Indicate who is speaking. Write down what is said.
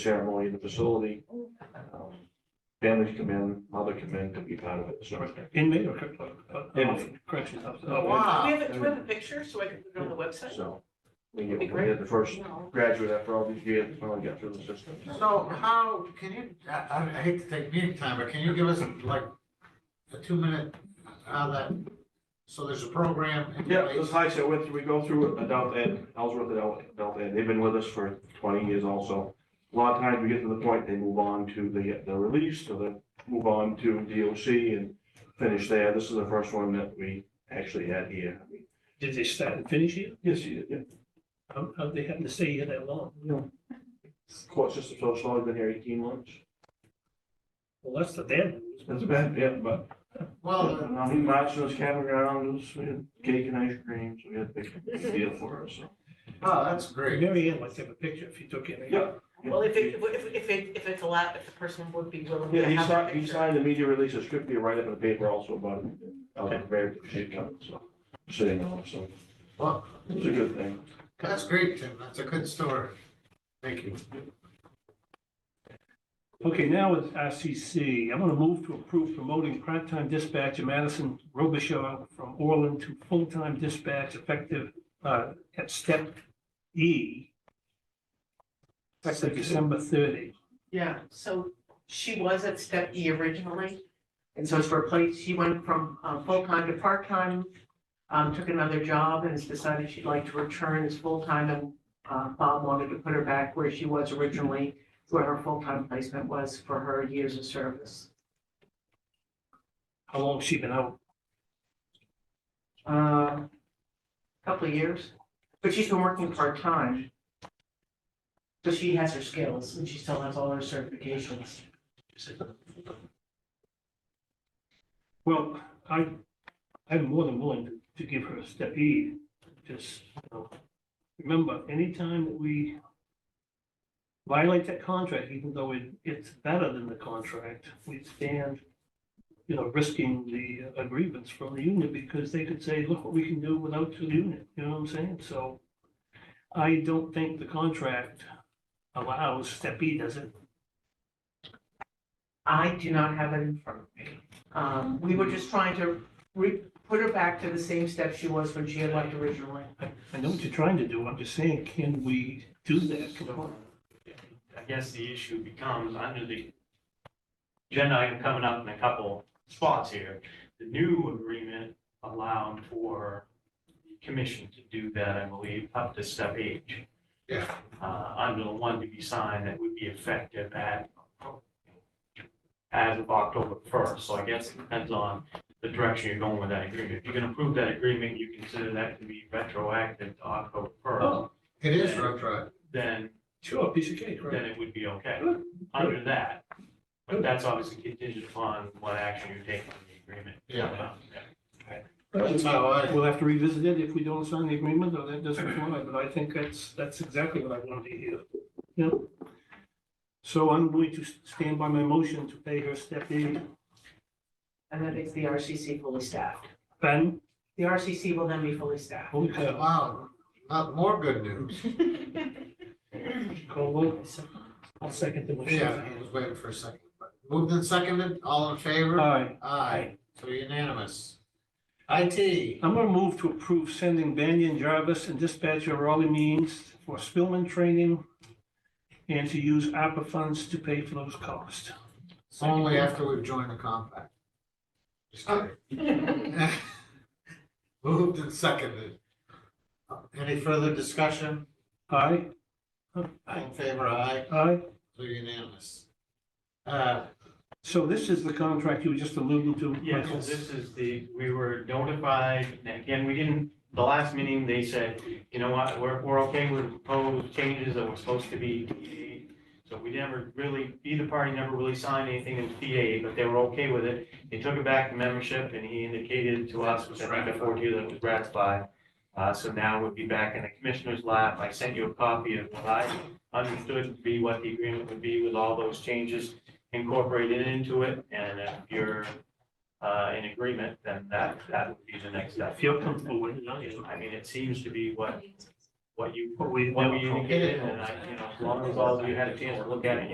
Speaker 1: ceremony in the facility. Um, Families come in, mother come in to be part of it, so.
Speaker 2: Inmate or cor- uh,
Speaker 1: Inmate.
Speaker 2: corrections officer?
Speaker 3: Wow.
Speaker 4: Do we have, a- do we have a picture so I can put it on the website?
Speaker 1: Uh, So, we get- we had the first graduate after all these years, when I got through the system.
Speaker 3: So how, can you, I, I hate to take meeting time, but can you give us like a two minute, how that, so there's a program in
Speaker 1: Yeah, this
Speaker 3: place?
Speaker 1: high school, went through- we go through adult ed, Ellsworth adult, adult ed, they've been with us for twenty years also. A lot of times we get to the point, they move on to the, the release, or they move on to DOC and finish there. This is the first one that we actually had here.
Speaker 2: Did they start and finish here?
Speaker 1: Yes, you did, yeah.
Speaker 2: How, how they happen to stay here that long?
Speaker 1: No. Court system so slow, I've been here eighteen months.
Speaker 2: Well, that's the damn news.
Speaker 1: That's bad, yeah, but
Speaker 3: Well, uh,
Speaker 1: um, he marched us camping around, we had cake and ice cream, so we had a big deal for us, so.
Speaker 3: oh, that's great.
Speaker 2: Mary Ann likes to have a picture if you took it.
Speaker 1: Yeah.
Speaker 4: Well, if it, if, if it, if it's allowed, if the person would be willing
Speaker 1: Yeah,
Speaker 4: to
Speaker 1: he
Speaker 4: have a
Speaker 1: signed, he
Speaker 4: picture.
Speaker 1: signed the media release, a script, he write up in the paper also about it. I was very, she coming, so, sitting on, it, so,
Speaker 3: Well,
Speaker 1: it's a good thing.
Speaker 3: that's great, Tim. That's a good story. Thank you.
Speaker 2: Okay, now it's RCC. I'm gonna move to approve promoting part-time dispatcher Madison Robichaud from Orland to full-time dispatch effective, uh, at step E. Effective December thirty.
Speaker 4: Yeah, so she was at step E originally. And so it's replaced, she went from uh, full-time to part-time, um, took another job and has decided she'd like to return as full-time. And uh, Bob wanted to put her back where she was originally, where her full-time placement was for her years of service.
Speaker 2: How long has she been out?
Speaker 4: Uh, couple of years, but she's been working part-time. So she has her skills and she still has all her certifications.
Speaker 2: Well, I, I'm more than willing to- to give her a step E, just, you know, remember, anytime that we violate that contract, even though it, it's better than the contract, we stand, you know, risking the uh, grievance from the union, because they could say, look what we can do without the union, you know what I'm saying? So I don't think the contract allows step E, does it?
Speaker 4: I do not have it in front of me. Um, we were just trying to re, put her back to the same step she was when she had left originally.
Speaker 2: I know what you're trying to do, I'm just saying, can we do that? Can we-
Speaker 5: I guess the issue becomes under the agenda item coming up in a couple spots here, the new agreement allowed for the commission to do that, I believe, up to step H.
Speaker 3: Yeah.
Speaker 5: Uh, under the one to be signed that would be effective at as of October first, so I guess it depends on the direction you're going with that agreement. If you can approve that agreement, you consider that to be retroactive to October first,
Speaker 3: It is retro.
Speaker 5: then
Speaker 2: Sure, piece of cake, right?
Speaker 5: then it would be okay
Speaker 2: Good.
Speaker 5: under that. But that's obviously contingent upon what action you take on the agreement.
Speaker 3: Yeah. That's how I-
Speaker 2: We'll have to revisit it if we don't sign the agreement, or that doesn't apply, but I think that's, that's exactly what I wanted to hear. Yep. So I'm going to stand by my motion to pay her step E.
Speaker 4: And that makes the RCC fully staffed.
Speaker 2: Ben,
Speaker 4: The RCC will then be fully staffed.
Speaker 2: holy cow,
Speaker 3: Wow, not more good news.
Speaker 2: call vote. I'll second the motion.
Speaker 3: Yeah, I was waiting for a second. Moved and seconded, all in favor?
Speaker 2: Aye.
Speaker 3: Aye, so unanimous. IT,
Speaker 2: I'm gonna move to approve sending Banyan Jarvis and dispatcher Raleigh Means for Spillman training and to use ARPA funds to pay for those costs.
Speaker 3: only after we've joined the compact. Just kidding. Moved and seconded. Any further discussion?
Speaker 2: Aye?
Speaker 3: All
Speaker 2: Aye.
Speaker 3: in favor, aye,
Speaker 2: Aye?
Speaker 3: so unanimous. Uh,
Speaker 2: So this is the contract you were just alluding to,
Speaker 5: Yeah, so
Speaker 2: Michael?
Speaker 5: this is the, we were notified, and again, we didn't, the last meeting, they said, you know what, we're, we're okay with proposed changes that were supposed to be. PDA. So we never really, either party never really signed anything in PA, but they were okay with it. They took it back to membership and he indicated to us, which I think I forwarded you, that it was ratified. Uh, so now we'd be back in the commissioner's lap. I sent you a copy of what I understood to be what the agreement would be with all those changes incorporated into it. And if you're uh, in agreement, then that, that would be the next step.
Speaker 2: If you're comfortable with it, I am.
Speaker 5: I mean, it seems to be what what you,
Speaker 2: What we-
Speaker 5: what we
Speaker 2: okay.
Speaker 5: indicated, and I, you know, as long as all of you had a chance to look at it,